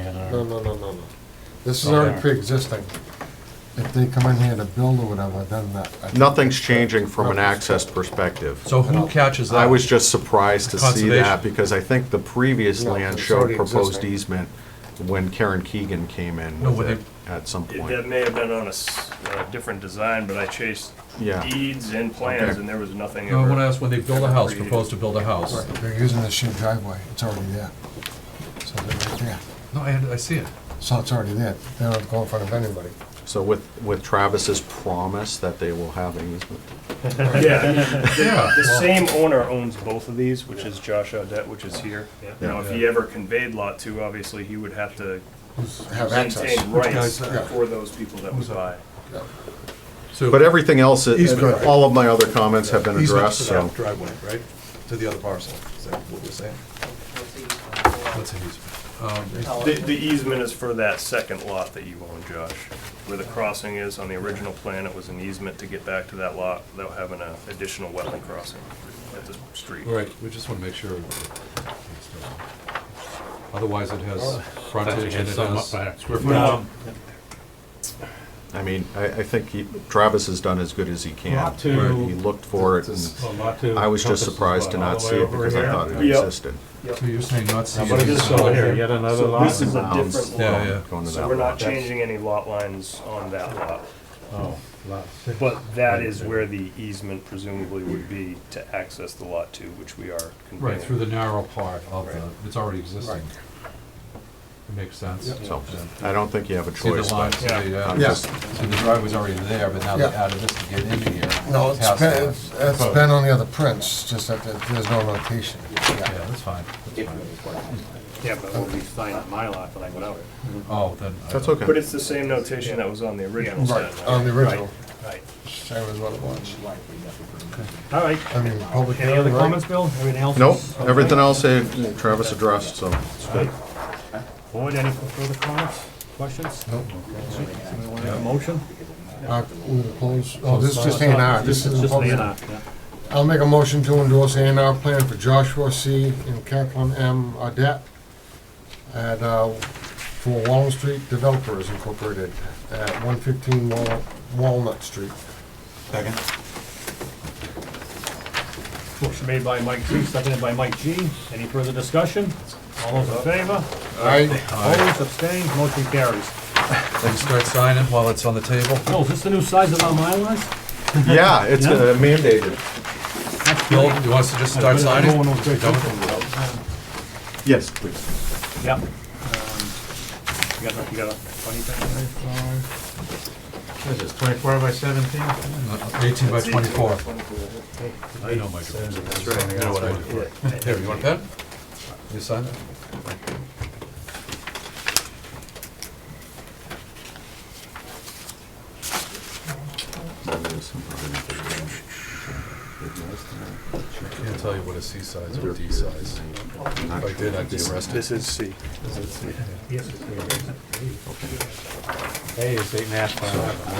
No, no, no, no, no. This is Oh, Okay. already pre-existing. If they come in here to build or whatever, then that. I- Nothing's changing from an access perspective. So who catches that? I was just surprised to see that, Conservation. because I think the previous No, land it's showed already proposed existing. easement when Karen Keegan came in No, with but it at some It- That point. may have been on a, s- a different design, but I chased Yeah. deeds and plans, Okay. and there was nothing No, I want to ever. ask when they build a house, propose to build a house. Right, They're using the shared driveway, it's already there. So they're right there. No, I, I see it. So it's already there. They don't go in front of anybody. So with, with Travis's promise that they will have an easement. Yeah, Yeah. the well, same owner owns both of these, which is Josh Audette, which is here. Now, if he ever conveyed lot two, obviously, he would have to Have access. maintain rights Who's that? for those people that would buy. So, But everything else, Easement. all of my other comments have been easement addressed, to so. that driveway, right? To the other parcel, is that what we're saying? What's an easement? Um, The, the easement is for that second lot that you own, Josh, where the crossing is. On the original plan, it was an easement to get back to that lot without having an additional wetland crossing at the street. All right, we just want to make sure. Otherwise, it Oh. has frontage and it has square footage. I mean, I, I think he- Travis has done as good as he can. Lot He two. looked for it, and I was just surprised to not see it because I thought it Yeah. existed. So you're saying not see. What is this over here, yet another So lot? this is a Bounds. different Yeah, lot. yeah. Going to So that we're lot. not changing any lot lines on that lot, Oh, lot six. but that is where the easement presumably would be to access the lot to, which we are conveying. Right, through the narrow part of the, it's already existing. Right. It makes sense. So, Yeah. I don't think you have a See the choice, line, but see the, I'm uh, Yeah. just, see the driveway's already there, but now they Yeah. added this to get into here. No, it's Past been, that. it's- it's been on the other prints, just that there- there's no notation. Yeah, that's fine. That's fine. Yeah, but when we sign up my lot, then I go out. Oh, then. I that's don't- okay. But it's the same notation that was on the original set. Right, on the original, Right. same as what it was. All right, I mean, public. any other hearing, right? comments, Bill? Everything else? Nope, everything else eh, Travis addressed, so. Board, any further comments, questions? Nope. Motion? Uh, we will close, oh, this is just A and R, this is a Just public. A and R, yeah. I'll make a motion to endorse A and R plan for Joshua C. and Kathleen M. Adet at, uh, for Walnut Street Developers Incorporated at one fifteen Walnut Street. Motion made by Mike G, seconded by Mike G. Any further discussion? All those in favor? Aye. Opposed, abstained, motion carries. Then start signing while it's on the table. Oh, is this the new size of our MyLars? Yeah, it's uh, mandated. Bill, you want us to just start No signing? one was very Done with comfortable with those. Yes, please. Yep. Um, You got, a- you got a funny thing? What is this, twenty-four by seventeen? Uh, Eighteen by twenty-four. I know, Michael. That's right. Here, you want a pen? You sign it? Can't tell you what a C size or a D size. If I did, I'd be arrested. This is C. A is eight and a half by eleven,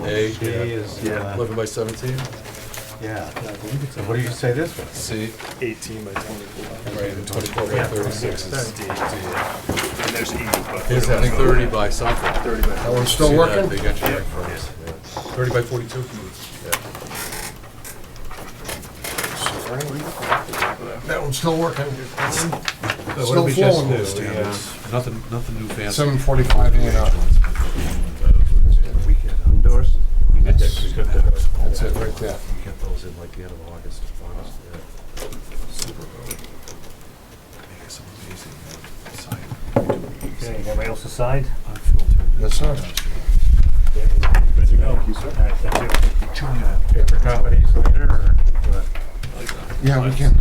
right? A, B is, uh, eleven by seventeen, yeah. So what do you say this was? C, Eighteen by twenty-four. right, and twenty-four by thirty-six is D. And there's E, but. Here's, I think, thirty by something. Thirty by. That one's still See that working? Big engineering firm. Thirty by forty-two? That one's still working. What Still did we flowing, just do? Steve. Yeah, Nothing, nothing new fancy. Seven forty-five A and R. Endorsed? That's that's it, right there. Get those in like the end of August, August, yeah. Super early. Make some amazing, uh, sign. Okay, everybody else aside? Unfiltered. Yes, sir. Ready to go? All right, thank you. Paper copies later, or? Yeah, we can.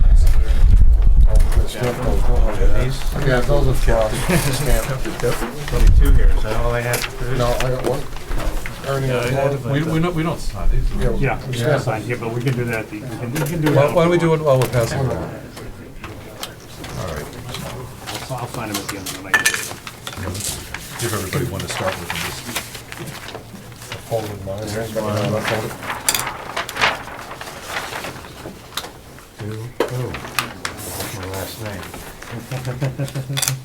Yeah, those are for, us. Stamp. Twenty-two here, is that all I have to produce? no, I got one. Ernie, Yeah, I had one. it. We, we don't, we don't sign these. do we? Yeah. Yeah, we should sign here, but we can do that, at the- we can, we can do Why that. why don't we do it while we're passing it around? I'll I'll sign them at the end of the night. Give everybody one to start with and just. Folded mine. Folded. Two, oh, that's my last name.